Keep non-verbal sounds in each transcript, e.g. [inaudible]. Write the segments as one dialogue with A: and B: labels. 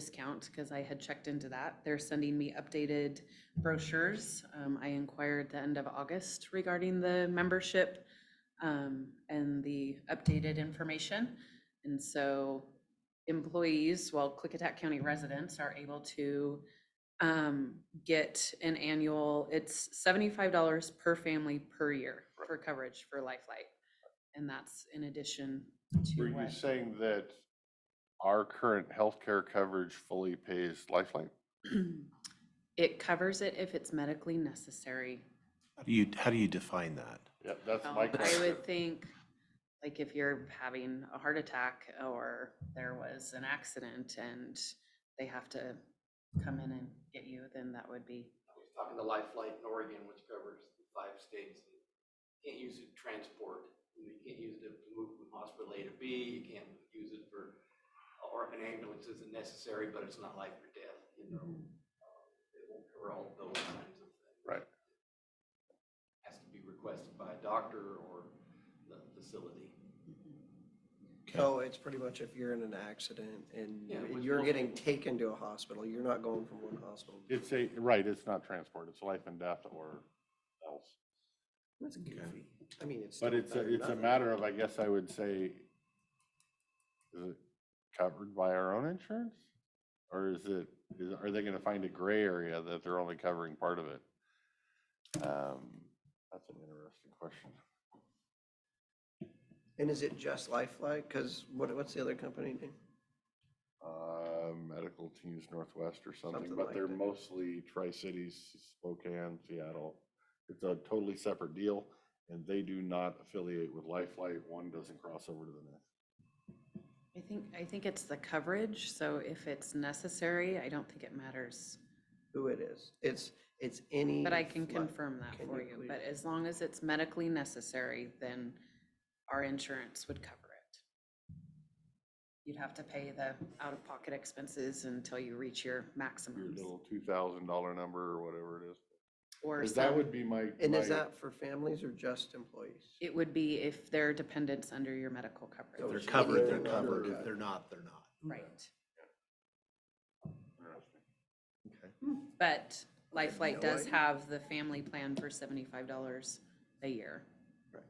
A: discount because I had checked into that. They're sending me updated brochures. Um, I inquired the end of August regarding the membership um, and the updated information. And so employees, well, Clickatack County residents are able to um, get an annual, it's seventy-five dollars per family per year for coverage for Lifeline. And that's in addition
B: Were
A: to
B: you
A: what,
B: saying that our current healthcare coverage fully pays Lifeline?
A: it covers it if it's medically necessary.
C: How do you, how do you define that?
B: Yeah, that's
A: Um,
B: my
A: I
B: question.
A: would think, like, if you're having a heart attack or there was an accident and they have to come in and get you, then that would be,
D: I was talking to Life Flight in Oregon, which covers the five states. Can't use it to transport, you can't use it to move from hospital A to B, you can't use it for, or an ambulance isn't necessary, but it's not life or death, you know?
A: Mm-hmm.
D: It won't cover all those kinds of things.
B: Right.
D: Has to be requested by a doctor or the facility.
E: So it's pretty much if you're in an accident and
D: Yeah, with
E: you're getting
D: multiple-
E: taken to a hospital, you're not going from one hospital. to
B: It's a, right, it's not transport, it's life and death or else.
E: That's goofy. I mean, it's.
B: But
E: still
B: it's, a
E: better than
B: it's a
E: nothing.
B: matter of, I guess I would say, is it covered by our own insurance? Or is it, is, are they gonna find a gray area that they're only covering part of it? Um, That's an interesting question.
E: And is it just Lifeline? Cause what, what's the other company name?
B: Uh, Medical Teams Northwest or something,
E: Something
B: but
E: like
B: they're
E: that.
B: mostly Tri-Cities, Spokane, Seattle. It's a totally separate deal and they do not affiliate with Lifeline. One doesn't cross over to the next.
A: I think, I think it's the coverage, so if it's necessary, I don't think it matters.
E: Who it is? It's, it's any.
A: But I can
E: flight.
A: confirm that
E: Can
A: for
E: you
A: you, but
E: please?
A: as long as it's medically necessary, then our insurance would cover it. You'd have to pay the out-of-pocket expenses until you reach your
B: Your
A: maximums
B: little two thousand dollar number or whatever it is.
A: or
B: 'Cause that
A: some-
B: would be my.
E: And is
B: my-
E: that for families or just employees?
A: It would be if there are dependents under your medical
C: If
A: coverage.
C: they're
E: Those are
C: covered,
E: the
C: they're
E: other
C: covered.
E: ones.
C: If they're not, they're not.
B: [laughs]
E: Mm-hmm.
A: Right.
B: Interesting.
C: Okay.
A: But Lifelight
E: no
A: does
E: idea.
A: have the family plan for seventy-five dollars a year.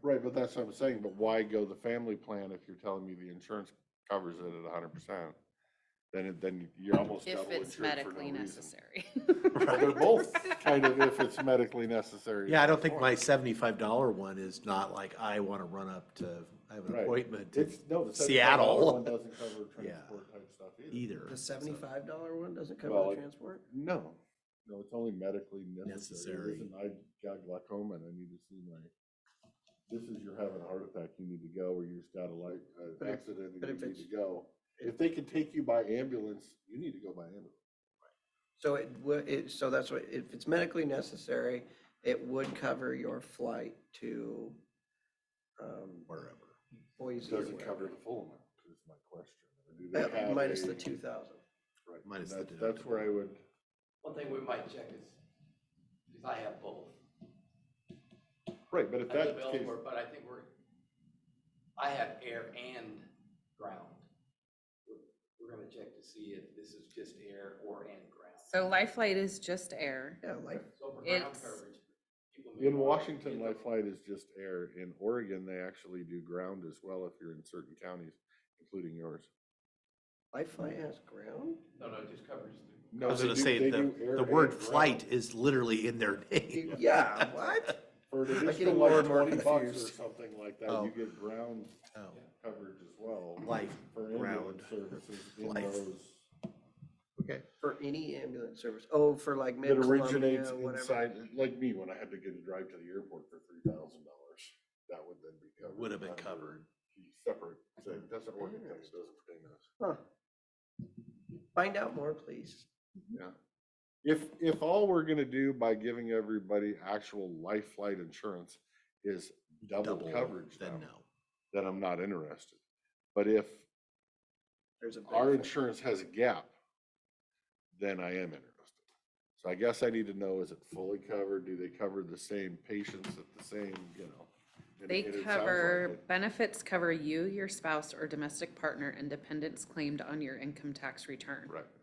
B: Right, but that's what I'm saying, but why go the family plan if you're telling me the insurance covers it at hundred percent? Then it, then you're almost
A: If
B: double insured
A: it's
B: for no
A: medically
B: reason.
A: necessary. [laughs]
B: But They're both kind of if it's medically necessary.
C: Yeah, I don't think my seventy-five dollar one is not like, I want to run up to, I have an
B: Right.
C: appointment
B: It's, no, the
C: Seattle.
B: Seattle one doesn't cover
C: Yeah. E
B: transport type stuff either.
C: either.
E: The
C: so-
E: seventy-five dollar one doesn't cover
B: Well,
E: the
B: it-
E: transport?
B: No, no, it's only medically necessary.
C: Necessary.
B: Listen, I got glaucoma and I need to see my, this is you're having a heart attack, you need to go, or you just got a light,
E: But
B: an
E: if-
B: accident
E: but
B: and
E: if
B: you need
E: it's-
B: to go. If they can take you by ambulance, you need to go by ambulance.
E: So it, wo- it, so that's what, if it's medically necessary, it would cover your flight to, um,
C: Wherever.
B: It
E: Boise. or
B: Doesn't cover
E: whatever.
B: the full amount, is my question. Do they
E: Uh,
B: have
E: Minus
B: a-
E: the two thousand.
B: right, and
C: Minus the
B: that's- That's where I would,
D: One thing we might check is, because I have both.
B: right, but if
D: I live
B: that's the case,
D: elsewhere, but I think we're, I have air and ground. We're- We're gonna check to see if this is just air or and ground.
A: So Lifelight is just air.
E: Yeah, like,
D: So for ground
A: It's-
D: coverage. people may
B: in
D: want-
B: Washington, life flight is just air. In Oregon, they actually do ground as well if you're in certain counties, including yours.
E: life flight has ground?
D: No, no, it just covers the.
B: No,
C: I was
B: they
C: gonna
B: do-
C: say,
B: they
C: the,
B: do air
C: the word
B: and ground.
C: flight is literally in their name.
E: Yeah, what?
B: For an additional
E: getting more
B: like
E: and more
B: twenty bucks or
E: confused.
B: something like that,
C: Oh.
B: you get ground
C: Oh,
B: coverage as well.
C: Life,
B: For
C: ground,
B: ambulance services in
C: life.
B: those
E: Okay, for any ambulance service, oh, for like
B: that
E: mid-Columbia,
B: originates
E: whatever.
B: inside, like me, when I had to get a drive to the airport for three thousand dollars, that would then be covered.
C: Would have been
B: under
C: covered.
B: the Separate, thing. that's an Oregon thing, it doesn't pertain to us.
E: Huh. Find out more, please.
B: If, if all we're gonna do by giving everybody actual life flight insurance is double
C: double,
B: coverage now,
C: then no.
B: then I'm not interested. But if
E: There's a. big
B: our
E: thing.
B: insurance has a gap, then I am interested. So I guess I need to know, is it fully covered? Do they cover the same patients at the same, you know? and-
A: They
B: and it sounds like
A: cover,
B: it.
A: benefits cover you, your spouse, or domestic partner and dependents claimed on your income tax return.
B: Right,